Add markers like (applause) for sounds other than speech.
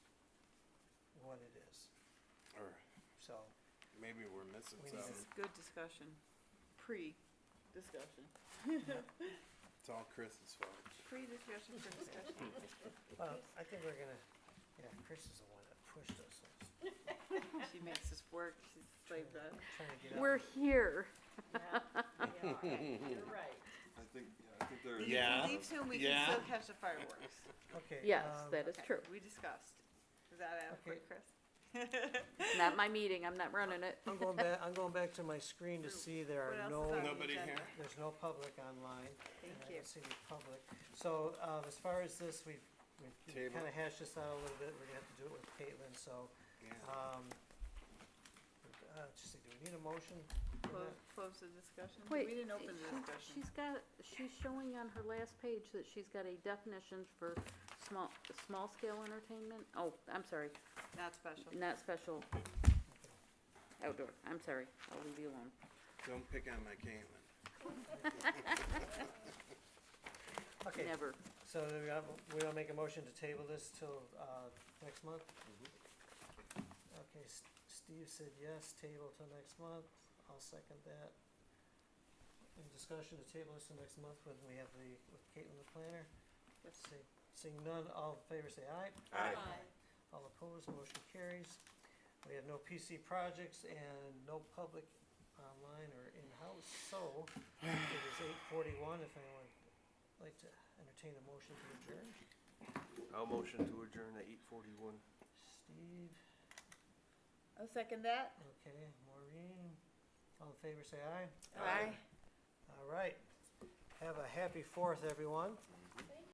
Or so. maybe we're missing We need This something. is good discussion, pre-discussion, It's all Chris's fault. pre-discussion, pre-discussion. Well, I think we're gonna, you know, Chris is the one that pushed us, so it's (laughs) She makes us work, she's slaved us. trying to get out. We're here. You're right. I think, yeah, I think there is. Yeah. If we leave soon, we can Yeah. still catch the fireworks. Okay, Yes, um, that is Okay, true. We discussed. Is that adequate, Okay. Chris? (laughs) Not my meeting, I'm not running it. I'm going back, I'm going back to my screen to see there What are else no, is on the Nobody agenda? here? there's no public online. and Thank I you. don't see any public. So, um, as far as this, we've, we've Table. kinda hashed this out a little bit, we're gonna have to do it with Caitlin, so, Yeah. um, uh, just, think, do we need a motion? on Close, that? close the discussion? Wait, We didn't open the she- discussion. She's got, she's showing on her last page that she's got a definition for small, small scale entertainment. Oh, I'm sorry, Not special. not special outdoor. I'm sorry, I'll leave you alone. Don't pick on my Caitlin. (laughs) Okay, Never. so we got, we don't make a motion to table this till, uh, next month? Okay, S- Steve said yes, table till next month, I'll second that. Any discussion to table this till next month when we have the, with Caitlin the planner? Yes. See- Seeing none, all in favor say aye. Aye. All opposed, motion carries. We have no PC projects and no public online or in-house, so it is eight forty-one, if anyone would like to entertain a motion to adjourn. I'll motion to adjourn at eight forty-one. Steve, I'll second that. okay, Maureen, all in favor, say aye. Aye. All right, have a happy fourth, everyone.